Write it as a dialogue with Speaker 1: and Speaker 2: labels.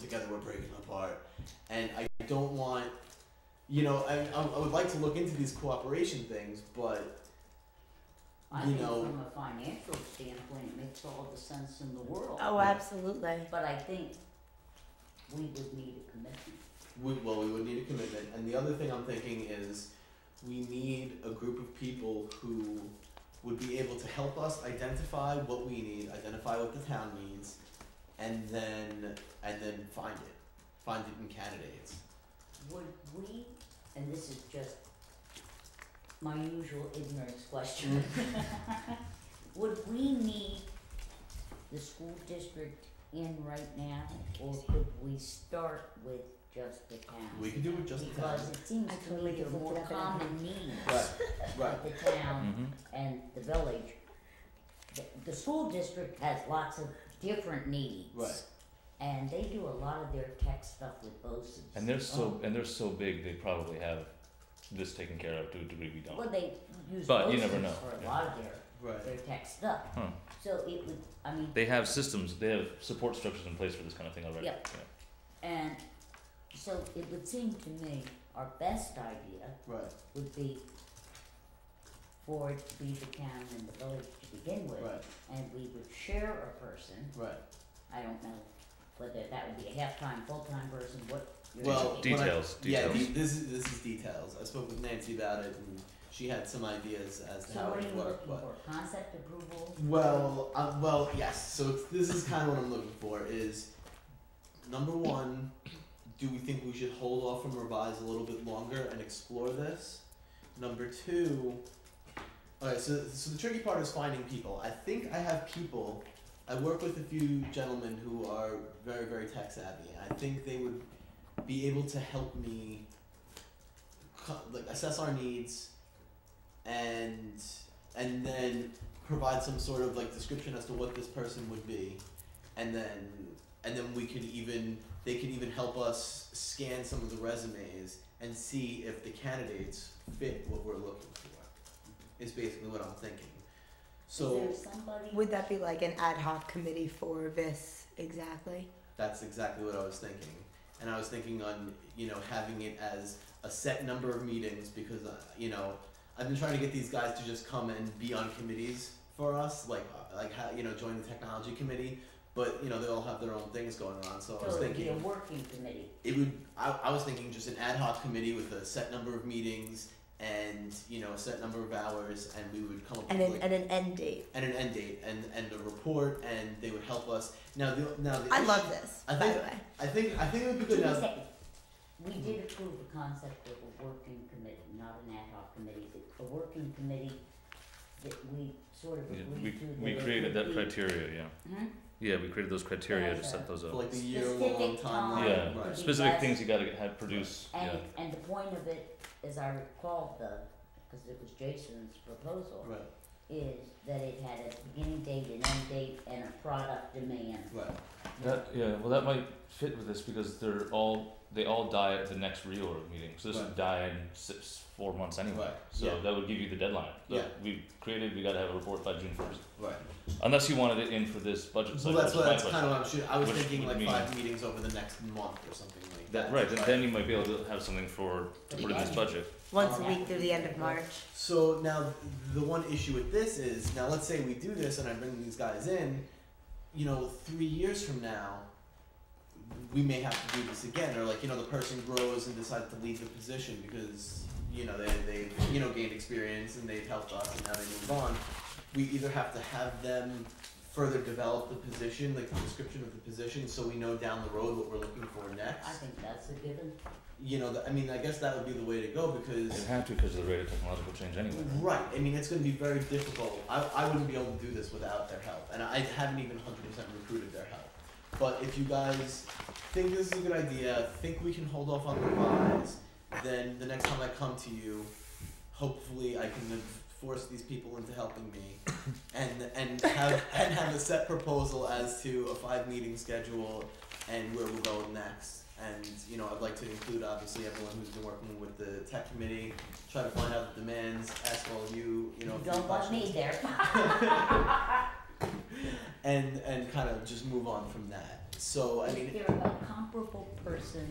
Speaker 1: together we're breaking apart. And I don't want, you know, I, I I would like to look into these cooperation things, but
Speaker 2: I
Speaker 1: You
Speaker 2: think
Speaker 1: know-
Speaker 2: from a financial standpoint, it makes all the sense in the world.
Speaker 3: Oh, absolutely.
Speaker 2: But I think we would need a commitment.
Speaker 1: we, well, we would need a commitment. And the other thing I'm thinking is we need a group of people who would be able to help us identify what we need, identify what the town needs, and then and then find it, find it in candidates.
Speaker 2: Would we, and this is just my usual ignorance question,
Speaker 1: Mm.
Speaker 2: would we need the school district in right now, or could we start with just the town?
Speaker 1: We could do it just the town.
Speaker 2: Because it seems
Speaker 3: I
Speaker 2: to
Speaker 3: totally
Speaker 2: me there are more
Speaker 3: just looked it up and I-
Speaker 2: common needs
Speaker 1: Right, right. Mm.
Speaker 2: of the town
Speaker 4: Mm-hmm.
Speaker 2: and the village. The, the school district has lots of different needs.
Speaker 1: Right.
Speaker 2: And they do a lot of their tech stuff with BOSI's.
Speaker 4: And they're so
Speaker 1: Oh.
Speaker 4: and they're so big. They probably have this taken care of to a degree we don't.
Speaker 2: Um, Well, they use
Speaker 4: But you
Speaker 2: BOSI's
Speaker 4: never know,
Speaker 2: for a
Speaker 4: yeah.
Speaker 2: lot of their,
Speaker 1: Right.
Speaker 2: their tech stuff.
Speaker 4: Huh.
Speaker 2: So it would, I mean,
Speaker 4: They have systems. They have support structures in place for this kind of thing already.
Speaker 2: Yep. and so it would seem to me our best idea
Speaker 1: Right.
Speaker 2: would be for it to be the town and the village to begin with.
Speaker 1: Right.
Speaker 2: And we would share a person
Speaker 1: Right.
Speaker 2: I don't know whether that would be a half-time, full-time person, what you're
Speaker 1: Well,
Speaker 2: thinking.
Speaker 1: what I-
Speaker 4: Details.
Speaker 1: Yeah,
Speaker 4: Details.
Speaker 1: the, this is this is details. I spoke with Nancy about it, and she had some ideas as to
Speaker 2: So
Speaker 1: how
Speaker 2: what
Speaker 1: it
Speaker 2: are you
Speaker 1: would work.
Speaker 2: looking
Speaker 1: But
Speaker 2: for, concept approval?
Speaker 1: well, uh, well, yes. So it's, this is kind of what I'm looking for. Is number one, do we think we should hold off from revise a little bit longer and explore this? Number two, all right. So so the tricky part is finding people. I think I have people. I work with a few gentlemen who are very very tech savvy. I think they would be able to help me co- like assess our needs and and then provide some sort of like description as to what this person would be and then and then we could even they could even help us scan some of the resumes and see if the candidates fit what we're looking for is basically what i'm thinking so
Speaker 2: Is there somebody?
Speaker 3: Would that be like an ad hoc committee for this exactly?
Speaker 1: That's exactly what I was thinking. And I was thinking on, you know, having it as a set number of meetings because, uh, you know, I've been trying to get these guys to just come and be on committees for us, like, uh, like how, you know, join the technology committee. But, you know, they all have their own things going on. So I was
Speaker 2: So it would be a
Speaker 1: thinking
Speaker 2: working committee,
Speaker 1: it would, I, I was thinking just an ad hoc committee with a set number of meetings and, you know, a set number of hours and we would come up
Speaker 3: And
Speaker 1: with
Speaker 3: an,
Speaker 1: like,
Speaker 3: and an end date.
Speaker 1: and an end date and, and a report and they would help us. Now, the, now the
Speaker 3: I love this,
Speaker 1: I
Speaker 3: by
Speaker 1: think-
Speaker 3: the way.
Speaker 1: I think, I think it would be
Speaker 2: Give
Speaker 1: good
Speaker 2: me
Speaker 1: now.
Speaker 2: a second. We did approve the concept of a working committee, not an ad hoc committee, but a working committee that we sort of
Speaker 4: Yeah,
Speaker 2: agreed
Speaker 4: we
Speaker 2: to.
Speaker 4: we
Speaker 2: it
Speaker 4: created that
Speaker 2: would be-
Speaker 4: criteria. Yeah.
Speaker 2: Hmm?
Speaker 4: Yeah, we created those criteria to set those
Speaker 1: for
Speaker 4: up.
Speaker 1: like the year long
Speaker 2: Specific
Speaker 1: timeline.
Speaker 2: time.
Speaker 4: Yeah,
Speaker 2: Right.
Speaker 4: specific things you got to have produce.
Speaker 2: And,
Speaker 4: Yeah.
Speaker 2: and the point of it, as I recall the, because it was Jason's proposal,
Speaker 1: Right,
Speaker 2: is that it had a beginning date, an end date, and a product demand.
Speaker 1: right,
Speaker 4: That yeah. Well, that might fit with this because they're all they all die at the next reorg meeting. So this
Speaker 1: Right.
Speaker 4: would die in six four months anyway.
Speaker 1: Right,
Speaker 4: So
Speaker 1: yeah.
Speaker 4: that would give you the deadline. So
Speaker 1: Yeah.
Speaker 4: We created. We got to have a report by June first.
Speaker 1: right.
Speaker 4: Unless you wanted it in for this budget
Speaker 1: Well,
Speaker 4: cycle.
Speaker 1: that's
Speaker 4: which
Speaker 1: what,
Speaker 4: is my
Speaker 1: that's
Speaker 4: budget.
Speaker 1: kind of what I'm shooting, I was
Speaker 4: Which
Speaker 1: thinking
Speaker 4: would
Speaker 1: like
Speaker 4: mean-
Speaker 1: five meetings over the next month or something like that.
Speaker 4: That, right, then, then you might be able to have something for
Speaker 2: For the
Speaker 4: for this
Speaker 2: end.
Speaker 4: budget.
Speaker 3: Once
Speaker 2: Oh,
Speaker 3: a
Speaker 2: yeah.
Speaker 3: week through the end of March.
Speaker 1: So now, the one issue with this is, now let's say we do this and I bring these guys in, you know, three years from now, we may have to do this again, or like, you know, the person grows and decides to leave the position because, you know, they, they, you know, gained experience and they've helped us and now they move on. We either have to have them further develop the position, like the description of the position, so we know down the road what we're looking for next.
Speaker 2: I think that's a given.
Speaker 1: You know, th- I mean, I guess that would be the way to go because.
Speaker 4: It'd have to because of the rate of technological change anyway. right?
Speaker 1: Right. I mean, it's going to be very difficult. I, I wouldn't be able to do this without their help, and I haven't even 100% recruited their help. But if you guys think this is a good idea, think we can hold off on the revise, then the next time I come to you, hopefully I can have forced these people into helping me, and and have and have a set proposal as to a five meeting schedule and where we're going next. And you know, I'd like to include obviously everyone who's been working with the tech committee, try to find out the demands, ask all of you, you know, a few
Speaker 2: Don't want me
Speaker 1: questions,
Speaker 2: there.
Speaker 1: and and kind of just move on from that. So I mean,
Speaker 2: If they're a comparable person